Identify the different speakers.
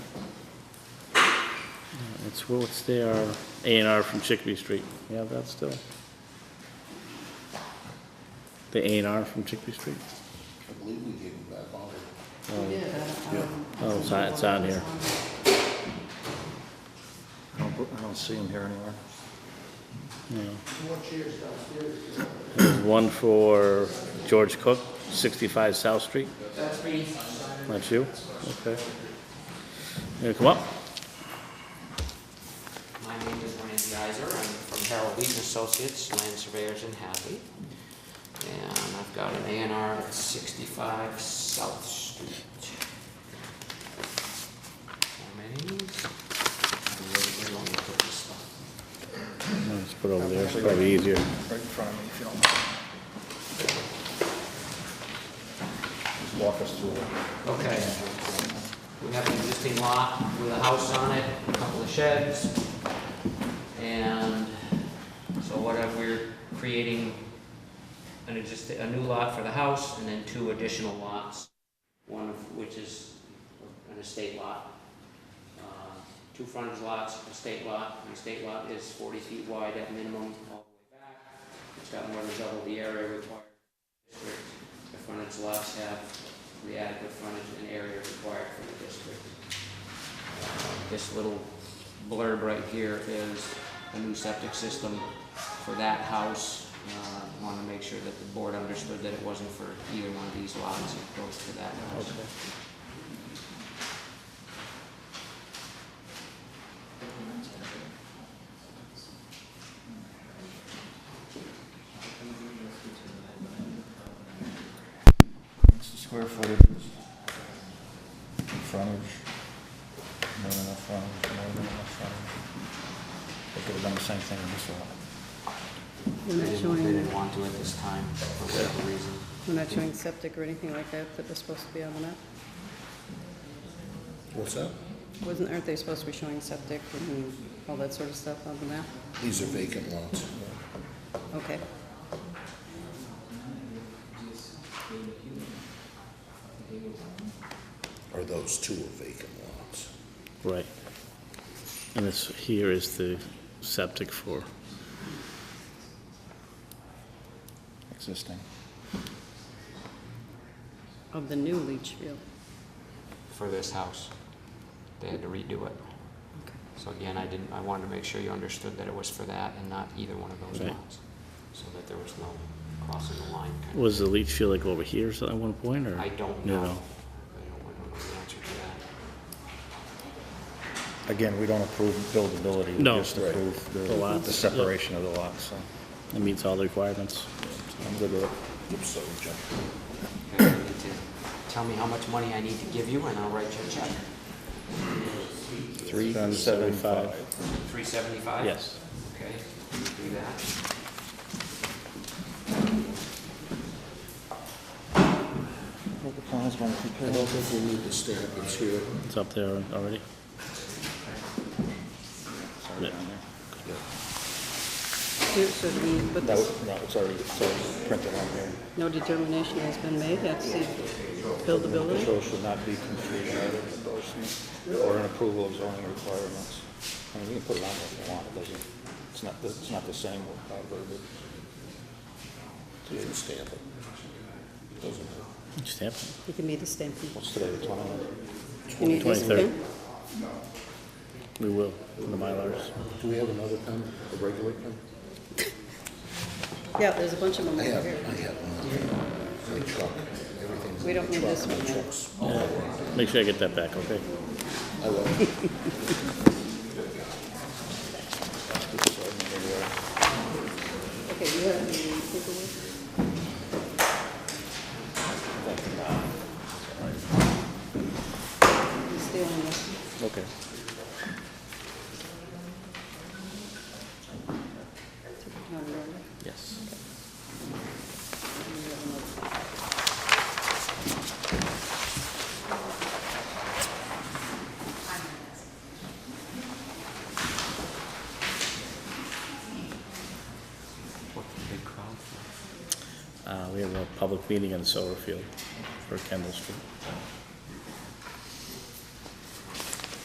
Speaker 1: It's, well, it's their A and R from Chickabee Street. You have that still? The A and R from Chickabee Street?
Speaker 2: I believe we gave them back all the
Speaker 3: Um,
Speaker 1: Oh, it's on, it's on here.
Speaker 4: I don't, bel- I don't see him here anywhere.
Speaker 1: There's one for George Cook, 65 South Street.
Speaker 3: That's me.
Speaker 1: That's you? Okay. You gonna come up?
Speaker 3: My name is Randy Iser. I'm from Harold Wheaton Associates, Land Surveyors in Hadley. And I've got an A and R at 65 South Street. Comments? I really don't wanna put this stuff.
Speaker 1: Let's put it over there, it's probably easier.
Speaker 4: Right in front of me, if you don't mind. Just walk us through it.
Speaker 3: Okay. We have an existing lot with a house on it, a couple of sheds. And so what if we're creating an exist, a new lot for the house and then two additional lots, one of which is an estate lot. Uh, Two frontage lots, estate lot, an estate lot is forty feet wide at minimum all the way back. It's got more than double the area required. The frontage lots have the adequate frontage and area required for the district. This little blurb right here is a new septic system for that house. Uh, Wanted to make sure that the board understood that it wasn't for either one of these lots, it goes for that house.
Speaker 4: It's the square footage, frontage, more than enough frontage, more than enough frontage. They could have done the same thing in this lot.
Speaker 3: They
Speaker 5: We're not
Speaker 3: didn't- They
Speaker 5: showing,
Speaker 3: didn't want to at this time, for whatever reason.
Speaker 5: we're not showing septic or anything like that that was supposed to be on the map?
Speaker 2: What's that?
Speaker 5: Wasn't, aren't they supposed to be showing septic and all that sort of stuff on the map?
Speaker 2: These are vacant lots.
Speaker 5: Okay.
Speaker 2: Or those two are vacant lots.
Speaker 1: Right. And this, here is the septic for,
Speaker 4: Existing.
Speaker 5: Of the new leach field.
Speaker 3: for this house. They had to redo it.
Speaker 5: Okay.
Speaker 3: So again, I didn't, I wanted to make sure you understood that it was for that and not either one of those
Speaker 1: Right.
Speaker 3: lots. So that there was no crossing the line. kind of-
Speaker 1: was the leach field like over here at one point, or?
Speaker 3: I don't
Speaker 1: No,
Speaker 3: know.
Speaker 1: no.
Speaker 3: I don't, I don't know the answer to that.
Speaker 4: Again, we don't approve buildability, we
Speaker 1: No.
Speaker 4: just approve
Speaker 1: The
Speaker 4: the,
Speaker 1: lots,
Speaker 4: the
Speaker 1: yeah.
Speaker 4: separation of the lots, so
Speaker 1: It meets all the requirements.
Speaker 4: I'm good with it.
Speaker 2: Oops, sorry, John.
Speaker 3: Okay, you need to Tell me how much money I need to give you and I'll write you a check.
Speaker 4: Three,
Speaker 1: Seven,
Speaker 4: seven,
Speaker 1: five.
Speaker 4: five.
Speaker 3: Three seventy-five?
Speaker 1: Yes.
Speaker 3: Okay, do that.
Speaker 4: Well, The plans weren't
Speaker 2: I
Speaker 4: prepared.
Speaker 2: don't think we need to stand up and hear it.
Speaker 1: It's up there already.
Speaker 4: Sorry, down there.
Speaker 5: Here, so do we put
Speaker 4: That
Speaker 5: this,
Speaker 4: was, no, it's already, it's already printed on here.
Speaker 5: no determination has been made, that's the
Speaker 4: The
Speaker 5: buildability?
Speaker 4: show should not be confusing either with those, or an approval of zoning requirements. I mean, you can put it on if you want, it doesn't, it's not, it's not the same without verbiage.
Speaker 2: You didn't stamp it. Doesn't matter.
Speaker 1: Stamp it.
Speaker 5: You can meet the stamping.
Speaker 4: What's today, the twentieth?
Speaker 5: You need this
Speaker 1: 23rd.
Speaker 5: pen?
Speaker 1: We will, for the Mylars.
Speaker 2: Do we have another pen, a regular pen?
Speaker 5: Yeah, there's a bunch of them
Speaker 2: I
Speaker 5: over
Speaker 2: have,
Speaker 5: here.
Speaker 2: I have one. My truck, everything's
Speaker 5: We
Speaker 2: in
Speaker 5: don't
Speaker 2: my
Speaker 5: need
Speaker 2: truck,
Speaker 5: this
Speaker 2: my
Speaker 5: one, no.
Speaker 2: truck's
Speaker 1: Make sure I get that back, okay?
Speaker 2: I love it.
Speaker 5: Okay, you have the paperwork? You stay on this.
Speaker 4: Okay.
Speaker 5: on the road.
Speaker 1: Yes.
Speaker 3: What, the big crowd?
Speaker 1: Uh, we have a public meeting in the solar field for Kendall Street.
Speaker 3: Okay.